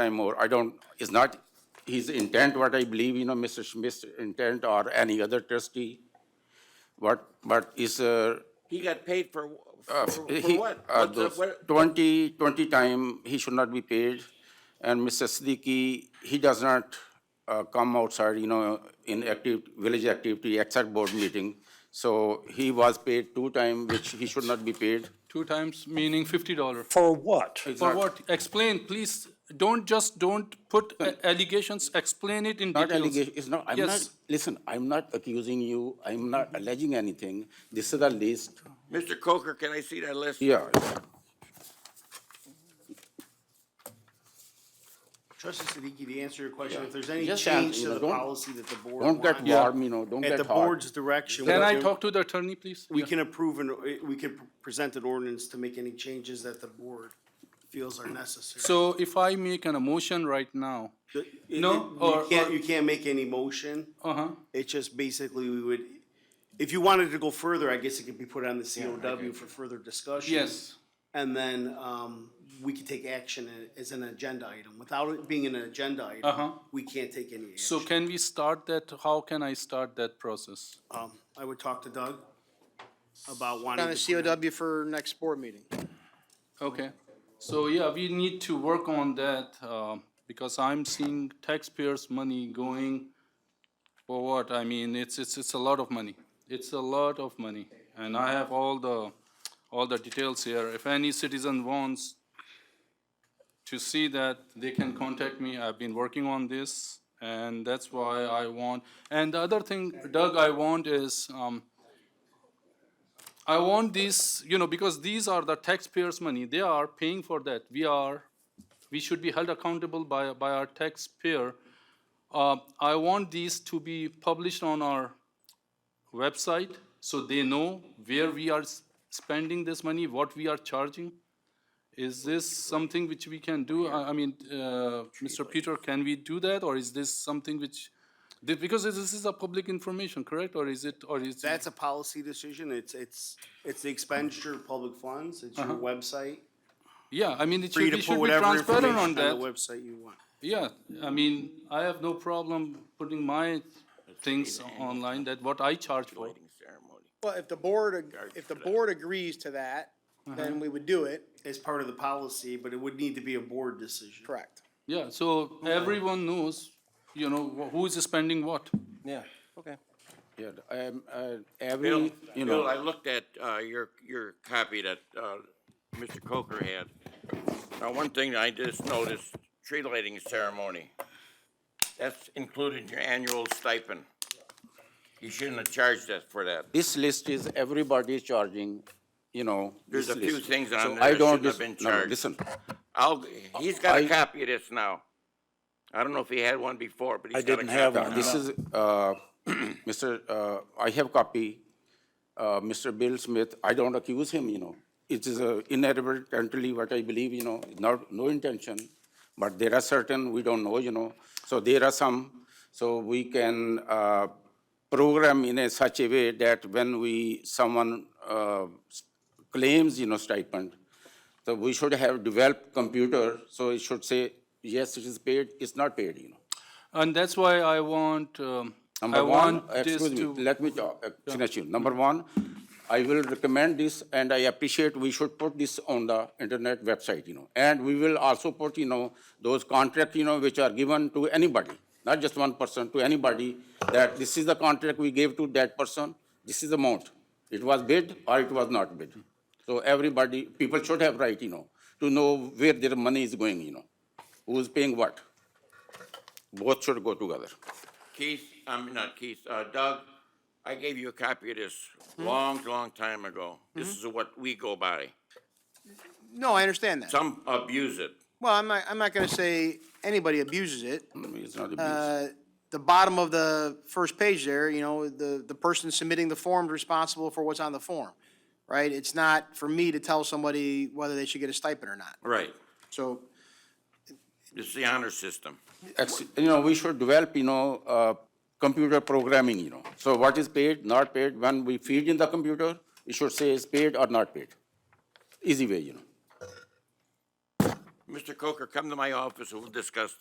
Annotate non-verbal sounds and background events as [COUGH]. time more. I don't, it's not his intent what I believe, you know, Mr. Smith's intent or any other trustee. What, but is, uh, He got paid for, uh, for for he, what? uh, What's the- those what- twenty, twenty time, he should not be paid. And Mr. Siddiqui, he does not, uh, come outside, you know, in active, village activity, except board meeting. So he was paid two time, which he should not be paid. Two times, meaning fifty dollar. For what? For what? Explain, please. Don't just, don't put a- allegations, explain it in Not details. allegation, it's not, I'm not, Yes. listen, I'm not accusing you, I'm not alleging anything. This is a list, Mr. Coker, can I see that list? yeah. Trustee Siddiqui, to answer your question, if there's any Just change an- you to know, the don't- policy that the board Don't get wants, warm, you know, don't at get the hot. board's direction, we Can I can, talk to the attorney, please? we Yeah. can approve and, uh, we can present an ordinance to make any changes that the board feels are necessary. So if I make an emotion right now, The- it- No, it- or- You can't, or- you can't make any motion. uh-huh, It's just basically we would, if you wanted to go further, I guess it could be put on the COW for further discussion. yes. And then, um, we could take action as an agenda item. Without it being an agenda Uh-huh. item, we can't take any action. So can we start that? How can I start that process? Um, I would talk to Doug about wanting On to. a put it- COW for next board meeting. Okay, so yeah, we need to work on that, um, because I'm seeing taxpayers' money going for what? I mean, it's, it's, it's a lot of money. It's a lot of money, and I have all the, all the details here. If any citizen wants to see that, they can contact me. I've been working on this, and that's why I want, and the other thing, Doug, I want is, um, I want these, you know, because these are the taxpayers' money. They are paying for that. We are, we should be held accountable by, by our taxpayer. Uh, I want these to be published on our website so they know where we are s- spending this money, what we are charging. Is this something which we can do? I, I mean, uh, Mr. Peter, can we do that, or is this something which, the- because this is a public information, correct, or is it, or is? it- That's a policy decision. It's, it's, it's the expenditure of public funds. It's your website. Yeah, I mean, it Free should, it to put should Uh-huh. be whatever transparent information on on the that. website you want. Yeah, I mean, I have no problem putting my things online that what I charge for. Ceremony. Well, if the board, ag- if the board agrees to that, then we would do it, It's part of the policy, but it would need to be a board decision. correct. Yeah, so everyone knows, you know, wh- who is spending what. Yeah, okay. Yeah, um, uh, Bill, every, you Bill, I know, looked at, uh, your, your copy that, uh, Mr. Coker had. Now, one thing I just noticed, tree lighting ceremony. That's included in your annual stipend. You shouldn't have charged us for that. this list is everybody charging, you know. There's this a few list. things on So there I that don't shouldn't dis- have been no, no, charged. Listen, I'll, he's got a I- copy of this now. I don't know if he had one before, but he's got a copy. didn't have now. one. this is, uh, [CLEARS THROAT] Mr., uh, I have copy, uh, Mr. Bill Smith, I don't accuse him, you know. It is uh, inadvertently what I believe, you know, not, no intention, but there are certain, we don't know, you know. So there are some, so we can uh, program in a such a way that when we, someone uh, claims, you know, stipend, so we should have developed computer, so it should say, yes, it is paid, it's not paid, you know. And that's why I want, um, I Number one, want this excuse me, to, let me talk, uh, finish you. Number one, I will recommend this and I appreciate we should put this on the internet website, you know. And we will also put, you know, those contract, you know, which are given to anybody, not just one person, to anybody, that this is the contract we gave to that person, this is the amount. It was bid or it was not bid. So everybody, people should have right, you know, to know where their money is going, you know, who's paying what. Both should go together. Keith, I'm not Keith, uh, Doug, I gave you a copy of this long, long time ago. This is what we go by. No, I understand that. Some abuse it. Well, I'm not, I'm not gonna say anybody abuses it. Hmm, It's not abuse. Uh, The bottom of the first page there, you know, the, the person submitting the form is responsible for what's on the form, right? It's not for me to tell somebody whether they should get a stipend or not. Right. So It's the honor system. ex- you know, we should develop, you know, uh, computer programming, you know. So what is paid, not paid, when we feed in the computer, it should say is paid or not paid. Easy way, you know. Mr. Coker, come to my office and we'll discuss